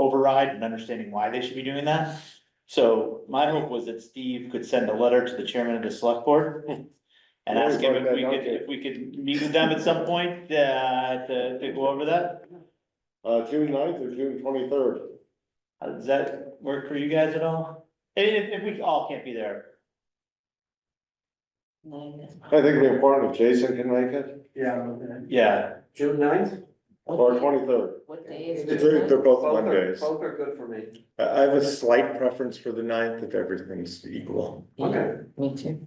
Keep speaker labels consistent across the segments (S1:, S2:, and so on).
S1: override and understanding why they should be doing that. So my hope was that Steve could send a letter to the chairman of the select board. And ask him if we could, if we could meet with them at some point, uh, to, to go over that.
S2: Uh, June 9th or June twenty-third?
S1: Uh, Does that work for you guys at all? And If, if we all can't be there,
S2: I think it'd be important if Jason can make it,
S3: Yeah.
S1: yeah,
S3: June ninth?
S2: or twenty-third.
S4: What day is
S3: It's
S4: it?
S2: both
S3: Both are good for me.
S2: I have a slight preference for the ninth if everything's equal.
S3: Okay.
S4: Me too.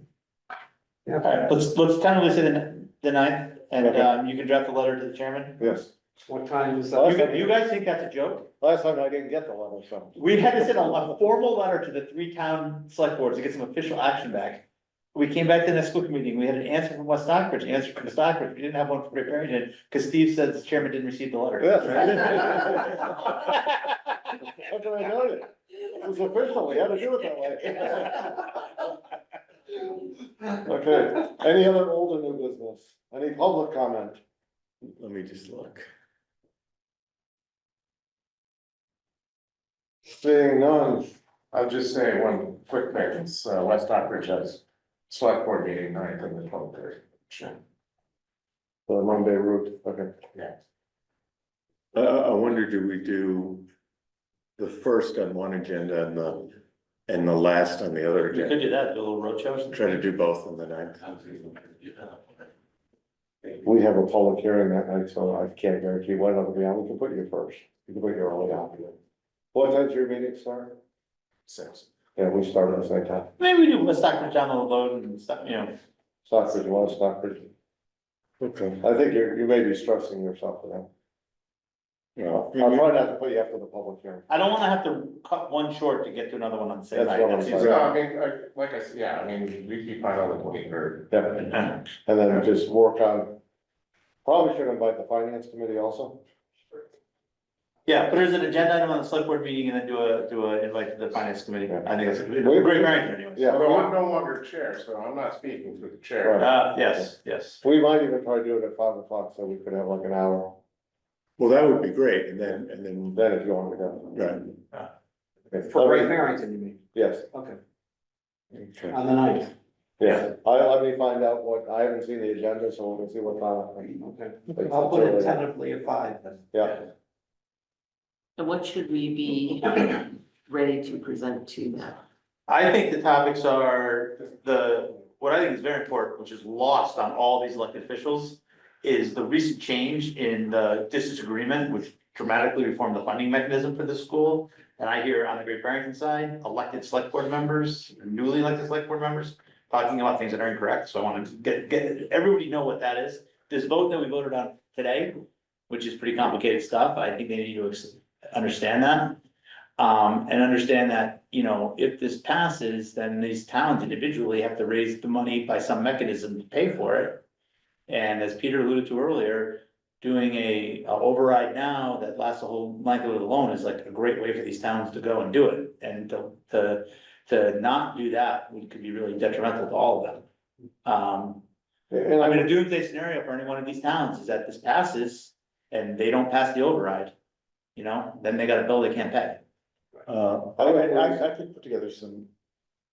S3: Yeah.
S1: alright, let's, let's tentatively say the, the ninth, and,
S2: Okay.
S1: um, you can draft a letter to the chairman.
S2: Yes.
S3: What time is
S1: You,
S3: that?
S1: gu- you guys think that's a joke?
S2: Last time I didn't get the letter, so.
S1: We had to send a, a formal letter to the three town select boards to get some official action back. We came back to the next school committee, meeting, we had an answer from West Stockbridge, an answer from Stockbridge, we didn't have one from Great Barrington, because Steve said the chairman didn't receive the letter.
S2: Yes. How can I know it? It was official, we had to do it that way. Okay, any other old or new business? Any public comment? Let me just look. Seeing none.
S5: I'll just say one quick thing, it's, uh, West Stockbridge has select board meeting ninth and the twelfth third.
S2: The Monday route, okay.
S5: Yeah.
S2: I, I wonder, do we do the first on one agenda and the, and the last on the other
S1: You could do that, do a little roadshow. or something.
S2: Try to do both on the ninth. We have a public hearing that night, so I can't guarantee when it'll be on. We can put you first. You can put your early on. What time's your meeting start?
S5: Six.
S2: Yeah, we start at the same time.
S1: Maybe we do West Stockbridge down the road and stuff, you know,
S2: Stockbridge one, Stockbridge.
S5: Okay.
S2: I think you're, you may be stressing yourself with that. I'll try not to put you after the public hearing.
S1: I don't wanna have to cut one short to get to another one on the same
S2: That's
S1: night.
S2: what I'm
S1: That seems-
S5: So, I mean, I- like I said, yeah, I mean, we keep on the twenty third.
S2: Yeah, and then just work on, probably should invite the finance committee also.
S1: Yeah, put it as an agenda item on the select board meeting and then do a, do a invite to the finance committee. I think that's a great,
S2: We-
S1: great variant anyway.
S2: Yeah.
S5: Although I'm no longer chair, so I'm not speaking for the chair.
S2: Right.
S1: Uh, yes, yes.
S2: We might even try to do it at five o'clock so we could have like an hour.
S6: Well, that would be great, and then, and then,
S2: Then if you want to go.
S6: right,
S2: Okay.
S3: For Great Barrington, you mean?
S2: Yes,
S3: Okay,
S6: okay.
S3: on the ninth.
S2: yeah. I, let me find out what, I haven't seen the agenda, so we can see what's on.
S3: Okay. I'll put it tentatively at five then.
S2: Yeah,
S4: And what should we be ready to present to them?
S1: I think the topics are the, what I think is very important, which is lost on all these elected officials, is the recent change in the distance agreement, which dramatically reformed the funding mechanism for the school. And I hear on the Great Barrington side, elected select board members, newly elected select board members, talking about things that are incorrect. So I want to get, get, everybody know what that is. This vote that we voted on today, which is pretty complicated stuff, I think they need to ex- understand that. Um, and understand that, you know, if this passes, then these towns individually have to raise the money by some mechanism to pay for it. And as Peter alluded to earlier, doing a, a override now that lasts a whole likelihood alone is like a great way for these towns to go and do it. And to, to, to not do that would, could be really detrimental to all of them. Um,
S2: and
S1: I
S2: I
S1: mean, a doomsday scenario for any one of these towns is that this passes and they don't pass the override. You know, then they got a bill they can't pay.
S6: Uh, I, I, I could put together some,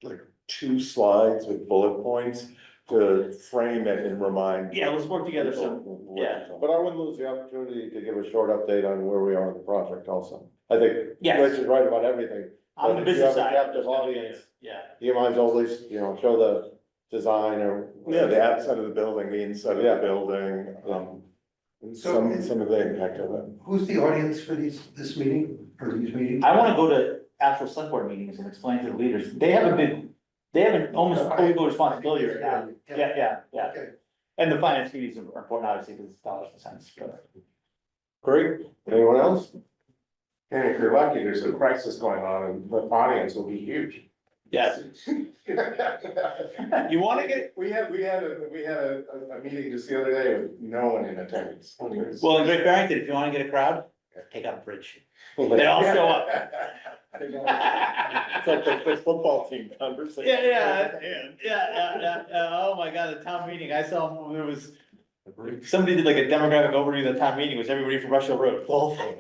S6: like, two slides with bullet points to frame it and remind.
S1: Yeah, let's work together some,
S6: people what
S1: yeah.
S2: but I wouldn't lose the opportunity to give a short update on where we are in the project also. I think Rich
S1: yes,
S2: is right about everything.
S1: on the
S2: But if you
S1: business
S2: have a
S1: side.
S2: captive
S1: there's gonna be a-
S2: audience.
S1: Yeah,
S2: You might as well at least, you know, show the design or.
S6: Yeah, the outside of the building, the inside of
S2: Yeah.
S6: the building, um, and
S7: So-
S6: some, some of the impact of it.
S7: Who's the audience for these, this meeting, or these meetings?
S1: I wanna go to actual select board meetings and explain to the leaders, they have a big, they have an almost overall responsibility right now. Yeah, yeah, yeah,
S7: Okay.
S1: and the finance committees are important, obviously, because it's dollars and cents, but.
S2: Great. Anyone else?
S5: And if you're lucky, there's a crisis going on and the audience will be huge.
S1: Yes, you wanna get,
S5: We had, we had, a we had a, a- a meeting just the other day with no one in attendance.
S1: well, in Great Barrington, if you wanna get a crowd, take out a bridge, they all show up. Yeah,
S6: It's like the, the football team conversation.
S1: Yeah, yeah, yeah, yeah, oh my god, the town meeting, I saw, there was, somebody did like a demographic overview of the town meeting, it was everybody from Russell Road.
S6: Awful.